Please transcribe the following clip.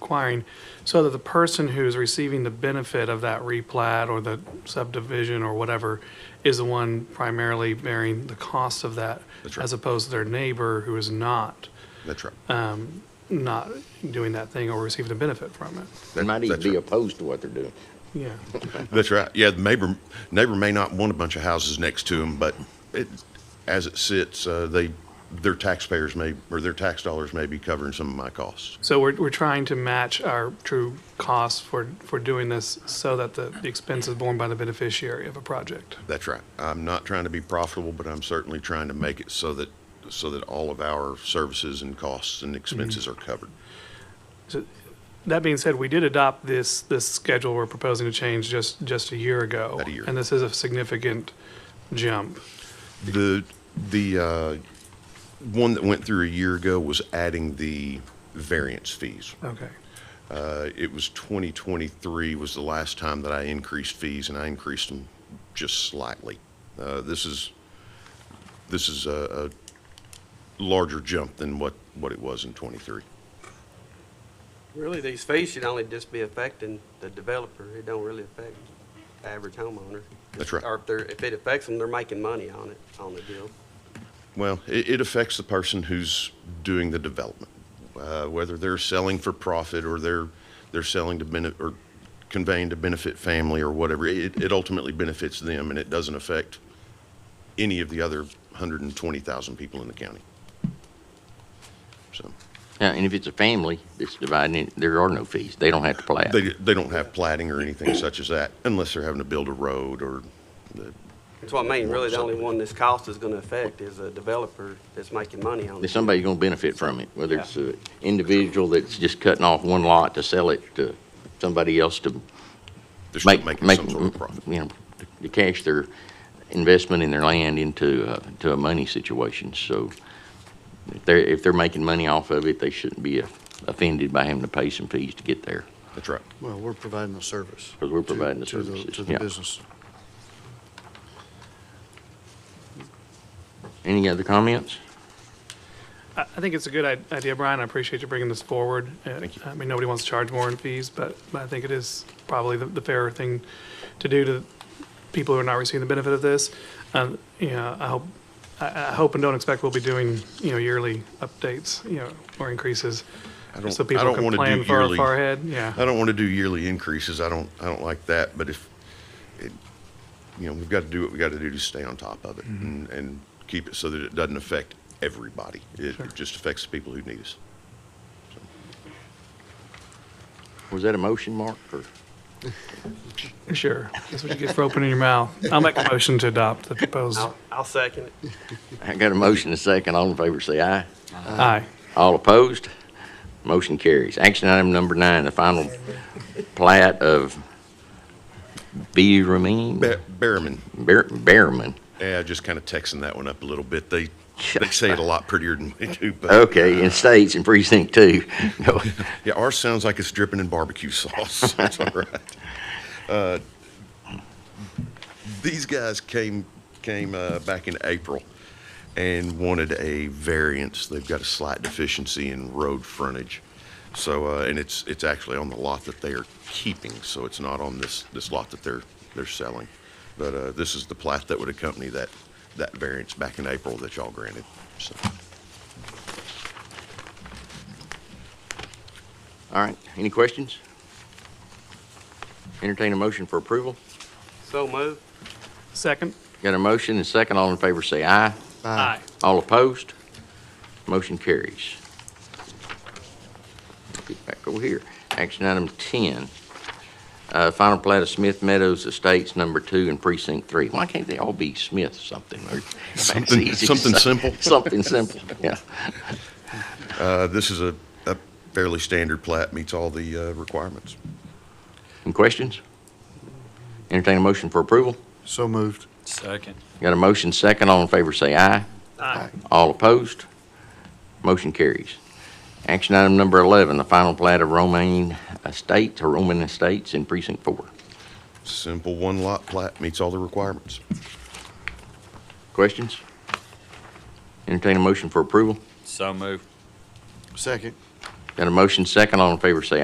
requiring, so that the person who's receiving the benefit of that replat or the subdivision or whatever is the one primarily bearing the cost of that, That's right. as opposed to their neighbor who is not, That's right. Uh, not doing that thing or receiving a benefit from it. That- might even that's be right. opposed to what they're doing. Yeah, That's right. Yeah, the neighbor neighbor may not want a bunch of houses next to them, but it, as it sits, uh, they their taxpayers may or their tax dollars may be covering some of my costs. so we're, we're trying to match our true costs for, for doing this so that the the expense is borne by the beneficiary of a project. That's right. I'm not trying to be profitable, but I'm certainly trying to make it so that so that all of our services and costs and expenses are covered. That being said, we did adopt this, this schedule we're proposing to change just, just a year ago. About a year. And this is a significant jump. The the uh, one that went through a year ago was adding the variance fees. Okay. Uh, It was 2023 was the last time that I increased fees, and I increased them just slightly. Uh, This is, this is a a larger jump than what, what it was in '23. Really, these fees should only just be affecting the developer. It don't really affect the average homeowner. That's right. Or if they're, if it affects them, they're making money on it, on the deal. Well, it, it affects the person who's doing the development, uh, whether they're selling for profit or they're they're selling to benefit or conveying to benefit family or whatever. It, it ultimately benefits them, and it doesn't affect any of the other 120,000 people in the county. So Yeah, and if it's a family that's dividing it, there are no fees. They don't have to plat. they they don't have plating or anything such as that, unless they're having to build a road or. The, That's what I mean, really, the only one this cost is gonna affect is a developer that's making money on There's it. Somebody's gonna benefit from it, whether it's an individual that's just cutting off one lot to sell it to somebody else to they're still make, making make, some sort of profit. you know, to cash their investment in their land into, uh, to a money situation. So if they're, if they're making money off of it, they shouldn't be offended by having to pay some fees to get there. That's right. Well, we're providing the service. Because we're to- providing the to services, To the yeah. business. Any other comments? I, I think it's a good i- idea, Brian. I appreciate you bringing this forward. Uh, Thank you. I mean, nobody wants to charge more in fees, but, but I think it is probably the, the fairer thing to do to people who are not receiving the benefit of this. Um, you know, I hope, I, I hope and don't expect we'll be doing, you know, yearly updates, you know, or increases. I don't- So I people don't can wanna do plan far, yearly- far ahead, yeah. I don't want to do yearly increases. I don't, I don't like that, but if, it- you know, we've got to do what we got to do to stay on top of it and, and keep it so that it doesn't affect everybody. It just affects the people who need us. Was that a motion, Mark, or? Sure. That's what you get for opening your mouth. I'll make a motion to adopt the proposed. I'll, I'll second it. I got a motion and a second. All in favor, say aye. Aye. All opposed? Motion carries. Action item number nine, the final plat of B. Ramin? Ba- Behrman, Bear- Bearman. yeah, just kind of texting that one up a little bit. They, they say it a lot prettier than we do, but Okay, in states in precinct two. No. yeah, ours sounds like it's dripping in barbecue sauce. That's all right. Uh, These guys came, came, uh, back in April. and wanted a variance. They've got a slight deficiency in road frontage. So, uh, and it's, it's actually on the lot that they are keeping, so it's not on this, this lot that they're, they're selling. But, uh, this is the plat that would accompany that, that variance back in April that y'all granted, so. All right, any questions? Entertain a motion for approval. So moved. Second? Got a motion and second. All in favor, say aye. Aye. All opposed? Motion carries. Get back over here. Action item 10, uh, final plat of Smith Meadows Estates Number 2 and Precinct 3. Why can't they all be Smith something? or- Something- It's easy. something simple. Something simple, yeah. Uh, this is a, a fairly standard plat, meets all the, uh, requirements. Any questions? Entertain a motion for approval? So moved. Second. Got a motion second, all in favor say aye. Aye. All opposed? Motion carries. Action item number 11, the final plat of Romaine Estates, or Roman Estates in Precinct 4. Simple one-lot plat, meets all the requirements. Questions? Entertain a motion for approval. So move. Second. Got a motion second, all in favor say